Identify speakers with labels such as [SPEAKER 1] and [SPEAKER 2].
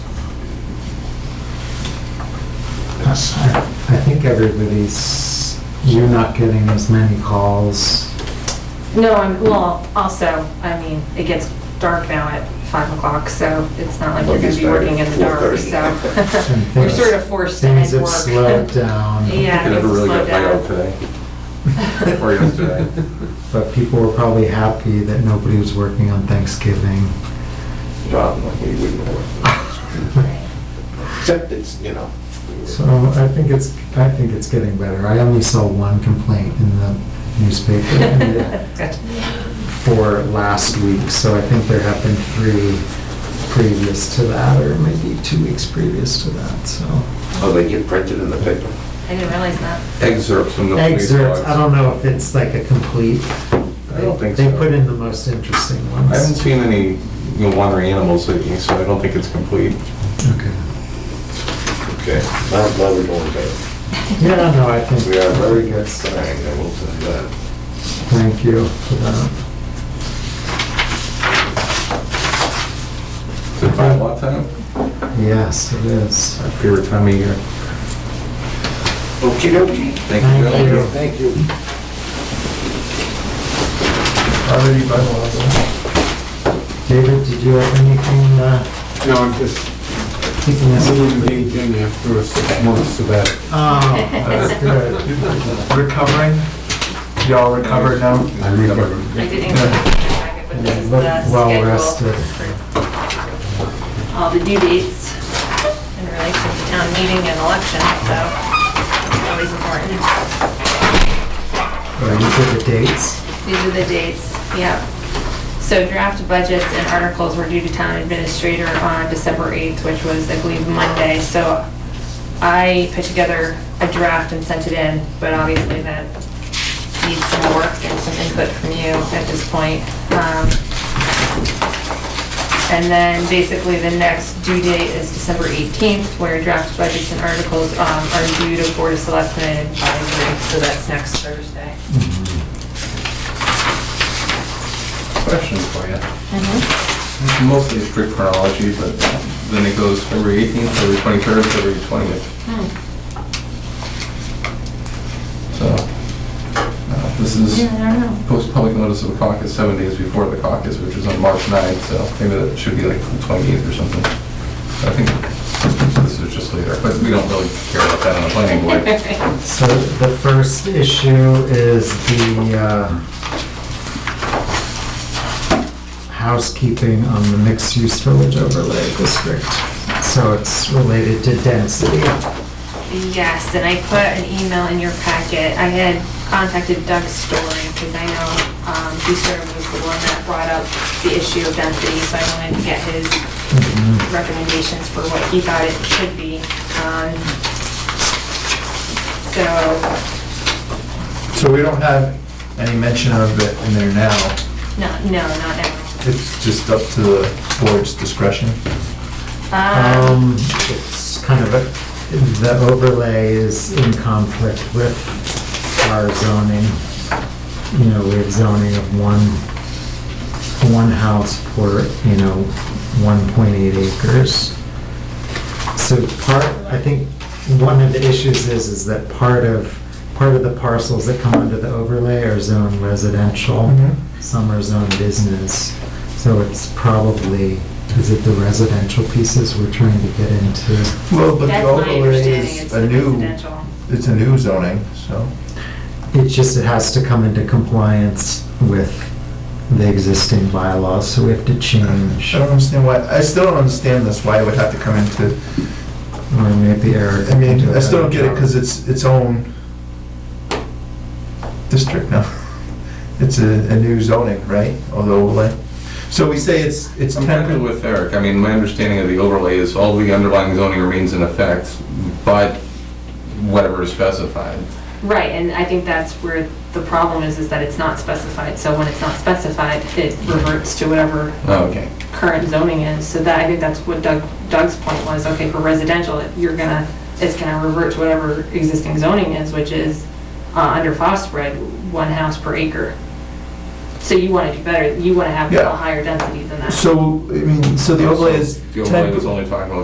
[SPEAKER 1] business.
[SPEAKER 2] I I think everybody's, you're not getting as many calls.
[SPEAKER 3] No, I'm, well, also, I mean, it gets dark now at five o'clock, so it's not like you're gonna be working in the dark, so.
[SPEAKER 2] and
[SPEAKER 3] You're
[SPEAKER 2] things-
[SPEAKER 3] sort of forced to
[SPEAKER 2] Things have
[SPEAKER 3] end work.
[SPEAKER 2] slowed down.
[SPEAKER 3] Yeah.
[SPEAKER 4] You never really
[SPEAKER 3] slow
[SPEAKER 4] got my
[SPEAKER 3] down.
[SPEAKER 4] out today, or yesterday.
[SPEAKER 2] But people were probably happy that nobody was working on Thanksgiving.
[SPEAKER 4] Well, we wouldn't have. Except it's, you know. we were-
[SPEAKER 2] So I think it's, I think it's getting better. I only saw one complaint in the newspaper
[SPEAKER 3] That's good.
[SPEAKER 2] for last week, so I think there have been three previous to that, or maybe two weeks previous to that, so.
[SPEAKER 5] Oh, they get printed in the paper.
[SPEAKER 3] I didn't realize that.
[SPEAKER 4] Excerpts from the police
[SPEAKER 2] Excerpts, I
[SPEAKER 4] logs.
[SPEAKER 2] don't know if it's like a complete.
[SPEAKER 4] I don't think
[SPEAKER 2] They
[SPEAKER 4] so.
[SPEAKER 2] put in the most interesting ones.
[SPEAKER 4] I haven't seen any you know, wandering animals lately, so I don't think it's complete.
[SPEAKER 2] Okay.
[SPEAKER 5] Okay. I'm glad we're doing better.
[SPEAKER 2] Yeah, no, I think.
[SPEAKER 5] We are
[SPEAKER 2] very
[SPEAKER 5] very
[SPEAKER 2] good.
[SPEAKER 5] good sign, I will tell you that.
[SPEAKER 2] Thank you for that.
[SPEAKER 4] Is it five lot time?
[SPEAKER 2] Yes, it is.
[SPEAKER 4] Our favorite time of year.
[SPEAKER 5] Okey dokey.
[SPEAKER 4] Thank
[SPEAKER 2] Thank
[SPEAKER 4] you, Bill.
[SPEAKER 2] you.
[SPEAKER 5] Thank you.
[SPEAKER 4] Already by law.
[SPEAKER 2] David, did you have anything, uh,
[SPEAKER 6] No, I'm just,
[SPEAKER 2] keeping us?
[SPEAKER 6] I wouldn't be in after a six months sabbatical.
[SPEAKER 2] Oh, that's good.
[SPEAKER 1] Recovering? Y'all recovered now?
[SPEAKER 6] I'm recovering.
[SPEAKER 3] I didn't include it in the packet, but this is
[SPEAKER 2] Look
[SPEAKER 3] the
[SPEAKER 2] well
[SPEAKER 3] schedule
[SPEAKER 2] rested.
[SPEAKER 3] for all the due dates in relation to town meeting and election, so it's always important.
[SPEAKER 2] Are you for the dates?
[SPEAKER 3] These are the dates, yep. So draft budgets and articles were due to town administrator on December 8th, which was, I believe, Monday. So I put together a draft and sent it in, but obviously that needs some work and some input from you at this point. Um, And then basically the next due date is December 18th, where draft budgets and articles um, are due to Board of Selectmen and advisory, so that's next Thursday.
[SPEAKER 4] Mm-hmm. Question for you. Mostly strict chronology, but then it goes February 18th, February 23rd, February 20th.
[SPEAKER 3] Hmm.
[SPEAKER 4] So uh, this is
[SPEAKER 3] Yeah, I don't know.
[SPEAKER 4] post public notice of the caucus seven days before the caucus, which is on March 9th, so maybe that should be like the 28th or something. I think this is just later, but we don't really care about that on the planning board.
[SPEAKER 2] So the first issue is the, uh, housekeeping on the mixed-use village overlay district. So it's related to density.
[SPEAKER 3] Yes, and I put an email in your packet. I had contacted Doug Story because I know um, he sort of was the one that brought up the issue of density, so I wanted to get his recommendations for what he thought it should be. Um, So,
[SPEAKER 1] So we don't have any mention of it in there now.
[SPEAKER 3] no, no, not now.
[SPEAKER 1] It's just up to the board's discretion.
[SPEAKER 3] Um,
[SPEAKER 2] Um, it's kind of a, the overlay is in conflict with our zoning. You know, we have zoning of one, one house for, you know, one point eight acres. So part, I think, one of the issues is, is that part of, part of the parcels that come under the overlay are zone residential,
[SPEAKER 1] Mhm.
[SPEAKER 2] some are zone business. So it's probably, is it the residential pieces we're trying to get into?
[SPEAKER 1] Well, but the
[SPEAKER 3] That's my
[SPEAKER 1] overlay
[SPEAKER 3] understanding, it's
[SPEAKER 1] is a new,
[SPEAKER 3] residential.
[SPEAKER 1] it's a new zoning, so.
[SPEAKER 2] It's just, it has to come into compliance with the existing bylaws, so we have to change,
[SPEAKER 1] I don't understand why, I still don't understand this, why it would have to come into,
[SPEAKER 2] or maybe Eric.
[SPEAKER 1] I
[SPEAKER 2] can
[SPEAKER 1] mean,
[SPEAKER 2] do a
[SPEAKER 1] I still don't
[SPEAKER 2] better
[SPEAKER 1] get it, because
[SPEAKER 2] job.
[SPEAKER 1] it's its own district now. It's a, a new zoning, right, or the overlay? So we say it's, it's
[SPEAKER 4] I'm happy
[SPEAKER 1] temporary.
[SPEAKER 4] with Eric. I mean, my understanding of the overlay is all the underlying zoning remains in effect, but whatever is specified.
[SPEAKER 3] Right, and I think that's where the problem is, is that it's not specified. So when it's not specified, it reverts to whatever
[SPEAKER 4] Oh, Okay.
[SPEAKER 3] current zoning is, so that, I think that's what Doug, Doug's point was, okay, for residential, you're gonna, it's gonna revert to whatever existing zoning is, which is, uh, under phosphid, one house per acre. So you wanna do better, you wanna have
[SPEAKER 1] Yeah.
[SPEAKER 3] a higher density than that.
[SPEAKER 1] So, I mean, so the overlay is
[SPEAKER 4] The overlay
[SPEAKER 1] temp-
[SPEAKER 4] was only talking about